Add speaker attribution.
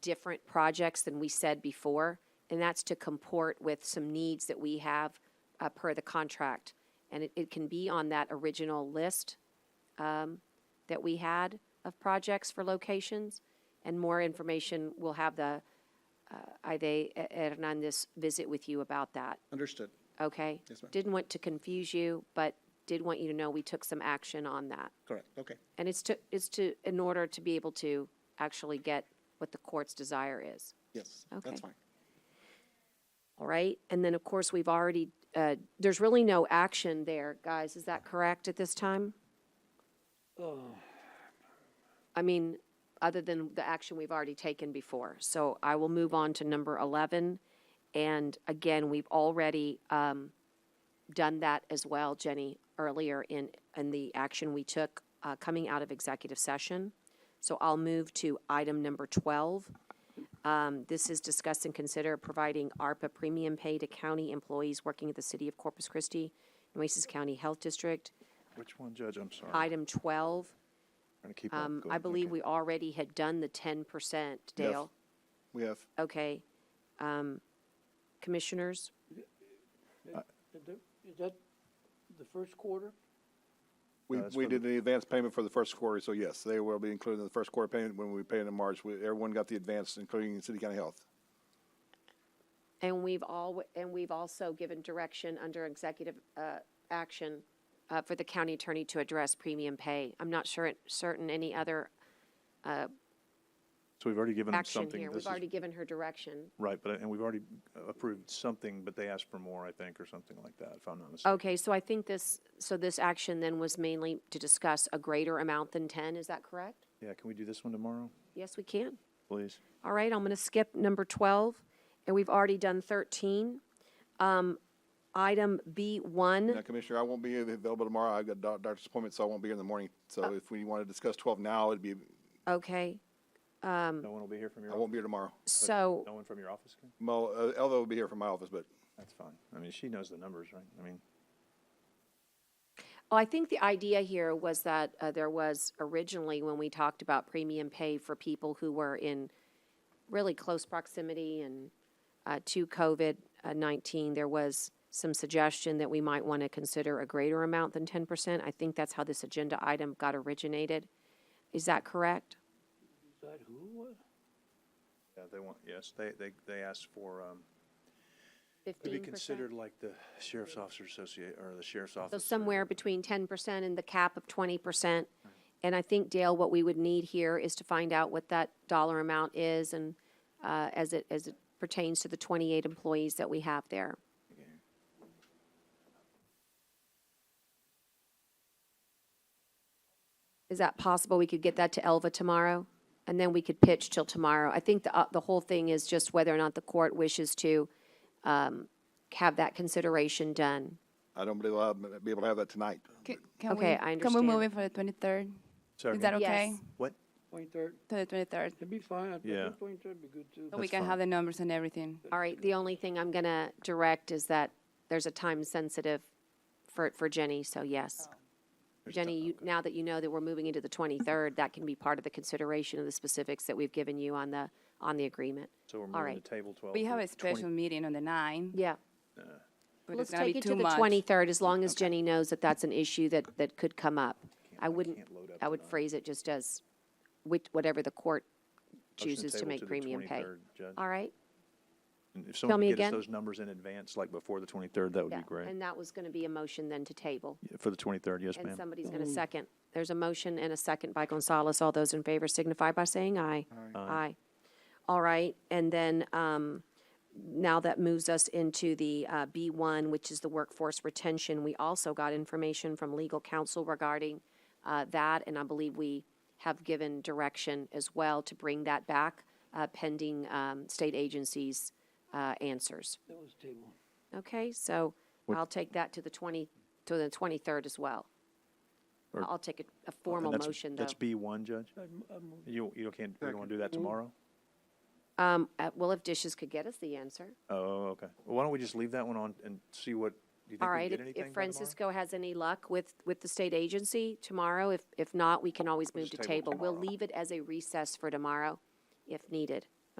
Speaker 1: different projects than we said before, and that's to comport with some needs that we have uh, per the contract. And it, it can be on that original list um, that we had of projects for locations, and more information, we'll have the uh, Ide Hernandez visit with you about that,
Speaker 2: Understood.
Speaker 1: okay?
Speaker 2: Yes, ma'am.
Speaker 1: Didn't want to confuse you, but did want you to know we took some action on that.
Speaker 2: Correct. Okay.
Speaker 1: And it's to, it's to, in order to be able to actually get what the court's desire is,
Speaker 2: Yes.
Speaker 1: Okay.
Speaker 2: That's fine.
Speaker 1: all right? And then, of course, we've already, uh, there's really no action there, guys, is that correct at this time? I mean, other than the action we've already taken before. So I will move on to number 11. And again, we've already um, done that as well, Jenny, earlier in, in the action we took uh, coming out of executive session. So I'll move to item number 12. Um, This is discuss and consider providing ARPA premium pay to county employees working at the City of Corpus Christi, Nueces County Health District.
Speaker 3: Which one, Judge? I'm sorry.
Speaker 1: Item 12.
Speaker 3: Trying to keep up.
Speaker 1: Um,
Speaker 3: Oh, Go
Speaker 1: I
Speaker 3: ahead.
Speaker 1: believe
Speaker 3: Okay.
Speaker 1: we already had done the ten percent, Dale.
Speaker 3: We have,
Speaker 1: Okay. Um, commissioners,
Speaker 4: Is that- Is that the first quarter?
Speaker 5: We,
Speaker 3: No, that's
Speaker 5: we
Speaker 3: for the-
Speaker 5: did the advance payment for the first quarter, so yes, they will be included in the first quarter payment when we pay it in March. We- Everyone got the advance, including City County Health.
Speaker 1: and we've all, and we've also given direction under executive, uh, action, uh, for the county attorney to address premium pay. I'm not sure, it- certain any other
Speaker 3: so we've already given them
Speaker 1: action
Speaker 3: something.
Speaker 1: here.
Speaker 3: This
Speaker 1: We've
Speaker 3: is-
Speaker 1: already given her direction.
Speaker 3: Right, but, and we've already approved something, but they asked for more, I think, or something like that, if I'm not mistaken.
Speaker 1: Okay, so I think this, so this action then was mainly to discuss a greater amount than ten, is that correct?
Speaker 3: Yeah, can we do this one tomorrow,
Speaker 1: Yes, we can.
Speaker 3: please?
Speaker 1: All right, I'm going to skip number 12, and we've already done 13. Um, Item
Speaker 5: Now,
Speaker 1: B1,
Speaker 5: Commissioner, I won't be available tomorrow. I've got doc- doctor's appointment, so I won't be here in the morning. So if we want to discuss twelve now, it'd be,
Speaker 1: okay, Um,
Speaker 3: No one will be here from
Speaker 5: I
Speaker 3: your, office?
Speaker 5: won't be here tomorrow.
Speaker 1: so,
Speaker 3: no one from your office? can?
Speaker 5: Mo, uh, Elva will be here from my office, but
Speaker 3: That's fine. I mean, she knows the numbers, right? I mean,
Speaker 1: oh, I think the idea here was that uh, there was originally, when we talked about premium pay for people who were in really close proximity and uh, to COVID-19, there was some suggestion that we might want to consider a greater amount than 10%. I think that's how this agenda item got originated. Is that correct?
Speaker 4: Is that who it was?
Speaker 3: yeah, they want, yes, they, they, they asked for, um,
Speaker 1: 15%?
Speaker 3: to be considered like the Sheriff's Officer Associate, or the Sheriff's
Speaker 1: So
Speaker 3: Office. or-
Speaker 1: somewhere between ten percent and the cap of twenty percent. And I think, Dale, what we would need here is to find out what that dollar amount is and, uh, as it, as it pertains to the twenty-eight employees that we have there. Is that possible? We could get that to Elva tomorrow, and then we could pitch till tomorrow. I think the, uh, the whole thing is just whether or not the court wishes to, um, have that consideration done.
Speaker 5: I don't believe I'll be able to have that tonight.
Speaker 6: Ca- Can
Speaker 1: Okay,
Speaker 6: we,
Speaker 1: I
Speaker 6: Can we
Speaker 1: understand.
Speaker 6: move it for the twenty-third?
Speaker 3: Sorry,
Speaker 6: Is that
Speaker 3: again?
Speaker 6: okay?
Speaker 1: Yes.
Speaker 3: What?
Speaker 4: Twenty-third,
Speaker 6: To the twenty-third,
Speaker 4: it'd be fine. I
Speaker 3: Yeah.
Speaker 4: think twenty-third would be good too.
Speaker 6: so we
Speaker 3: That's
Speaker 6: can
Speaker 3: fine.
Speaker 6: have the numbers and everything.
Speaker 1: All right, the only thing I'm gonna direct is that there's a time sensitive for, for Jenny, so
Speaker 6: Oh.
Speaker 1: yes. Jenny, you, now that you know that we're moving into the twenty-third, that can be part of the consideration of the specifics that we've given you on the, on the agreement.
Speaker 3: So we're
Speaker 1: All
Speaker 3: moving
Speaker 1: right,
Speaker 3: to table twelve.
Speaker 6: We have
Speaker 3: to 20
Speaker 6: a special meeting on the ninth,
Speaker 1: yeah.
Speaker 6: but
Speaker 1: Let's
Speaker 6: it's gonna
Speaker 1: take
Speaker 6: be
Speaker 1: it to
Speaker 6: too
Speaker 1: the
Speaker 6: much.
Speaker 1: twenty-third, as long as Jenny knows that that's an issue that, that could come up. I wouldn't,
Speaker 3: can't load up
Speaker 1: I would phrase it just as, which, whatever the court
Speaker 3: motion
Speaker 1: chooses to
Speaker 3: table
Speaker 1: make
Speaker 3: the
Speaker 1: premium pay.
Speaker 3: 23rd, Judge.
Speaker 1: All right?
Speaker 3: And If someone
Speaker 1: me
Speaker 3: could get
Speaker 1: again.
Speaker 3: us those numbers in advance, like before the 23rd, that would
Speaker 1: Yeah,
Speaker 3: be great.
Speaker 1: And that was gonna be a motion then to table.
Speaker 3: Yeah, For the 23rd, yes,
Speaker 1: And
Speaker 3: ma'am.
Speaker 1: somebody's going to second. There's a motion and a second by Gonzalez. All those in favor signify by saying aye. Aye. All right, and then um, now that moves us into the uh, B1, which is the workforce retention. We also got information from legal counsel regarding uh, that, and I believe we have given direction as well to bring that back uh, pending um, state agencies' uh, answers.
Speaker 4: That was table.
Speaker 1: Okay, so I'll take that to the 20, to the 23rd as well.
Speaker 3: Or-
Speaker 1: I'll take a- a
Speaker 3: And
Speaker 1: formal
Speaker 3: that's-
Speaker 1: motion, though.
Speaker 3: That's B1, Judge?
Speaker 4: I'd m- I'd move-
Speaker 3: You, you can't, you don't want to do that tomorrow?
Speaker 1: Um, uh, Well, if dishes could get us the answer.
Speaker 3: Oh, okay. Well, Why don't we just leave that one on and see what, do you
Speaker 1: All
Speaker 3: think we
Speaker 1: right,
Speaker 3: get
Speaker 1: if-
Speaker 3: anything
Speaker 1: if
Speaker 3: by tomorrow?
Speaker 1: Francisco has any luck with, with the state agency tomorrow, if, if not, we can always move
Speaker 3: just
Speaker 1: to
Speaker 3: table it
Speaker 1: table. We'll
Speaker 3: tomorrow.
Speaker 1: leave it as a recess for tomorrow if needed.